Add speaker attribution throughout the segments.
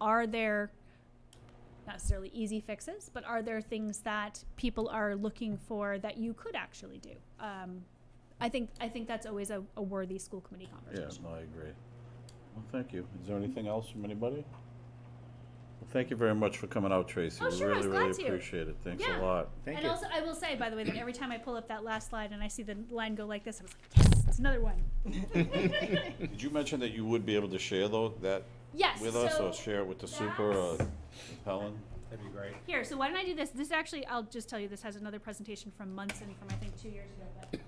Speaker 1: are there not necessarily easy fixes, but are there things that people are looking for that you could actually do? Um, I think I think that's always a, a worthy school committee
Speaker 2: Yeah,
Speaker 1: conversation.
Speaker 2: no, I agree. Well, thank you. Is there anything else from anybody? Well, thank you very much for coming out, Tracy.
Speaker 1: Oh,
Speaker 2: We
Speaker 1: sure, I was
Speaker 2: really, really
Speaker 1: glad to.
Speaker 2: appreciate it. Thanks
Speaker 1: Yeah.
Speaker 2: a lot.
Speaker 3: Thank
Speaker 1: and
Speaker 3: you.
Speaker 1: also, I will say, by the way, that every time I pull up that last slide and I see the line go like this, I was like, yes, it's another one.
Speaker 2: Did you mention that you would be able to share though, that
Speaker 1: Yes.
Speaker 2: with
Speaker 1: so
Speaker 2: us oh, or share it with the super or
Speaker 1: that's-
Speaker 2: Helen?
Speaker 3: That'd be great.
Speaker 1: Here, so why don't I do this? This actually, I'll just tell you, this has another presentation from Munson from I think two years ago. But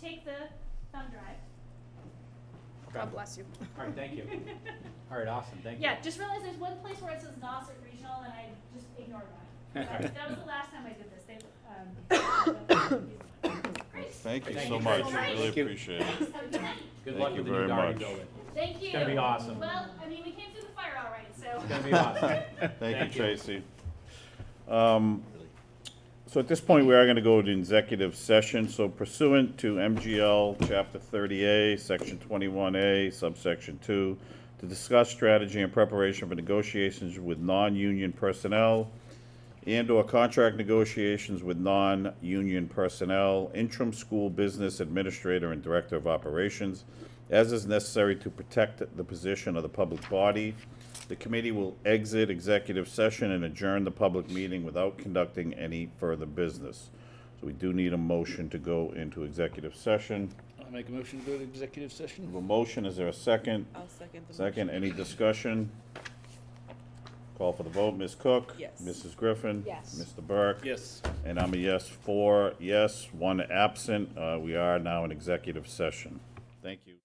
Speaker 1: take the thumb drive.
Speaker 3: God
Speaker 4: bless you.
Speaker 3: All right, thank you. All right, awesome, thank you.
Speaker 1: Yeah, just realize there's one place where it says Nauset Regional, and I just ignored that. That- That was the last time I did this. They, um.
Speaker 2: Well,
Speaker 1: Great.
Speaker 2: Thank you
Speaker 3: Thank
Speaker 2: so
Speaker 3: you,
Speaker 2: much.
Speaker 1: Tracy.
Speaker 2: Really
Speaker 3: Thank you.
Speaker 2: appreciate it.
Speaker 1: Have a good night.
Speaker 3: Good
Speaker 2: Thank
Speaker 3: luck
Speaker 2: you
Speaker 3: with the
Speaker 2: very
Speaker 3: new Darby
Speaker 2: much.
Speaker 3: building.
Speaker 1: Thank you.
Speaker 3: It's gonna be awesome.
Speaker 1: Well, I mean, we came through the fire all right, so.
Speaker 3: It's gonna be awesome.
Speaker 2: Thank
Speaker 3: Thank
Speaker 2: you,
Speaker 3: you.
Speaker 2: Tracy. Um, So at this point, we are going to go to executive session. So pursuant to MGL Chapter 30A, Section 21A, subsection 2, to discuss strategy and preparation for negotiations with non-union personnel and/or contract negotiations with non-union personnel, interim school business administrator and director of operations, as is necessary to protect the position of the public body. The committee will exit executive session and adjourn the public meeting without conducting any further business. So we do need a motion to go into executive session.
Speaker 5: I make a motion to go to executive session.
Speaker 2: We have A motion, is there a second?
Speaker 4: I'll second the motion.
Speaker 2: Second, any discussion? Call for the vote, Ms. Cook?
Speaker 4: Yes.
Speaker 2: Mrs. Griffin?
Speaker 4: Yes.
Speaker 2: Mr. Burke?
Speaker 5: Yes.
Speaker 2: And I'm a yes, four yes, one absent. Uh, We are now in executive session. Thank you.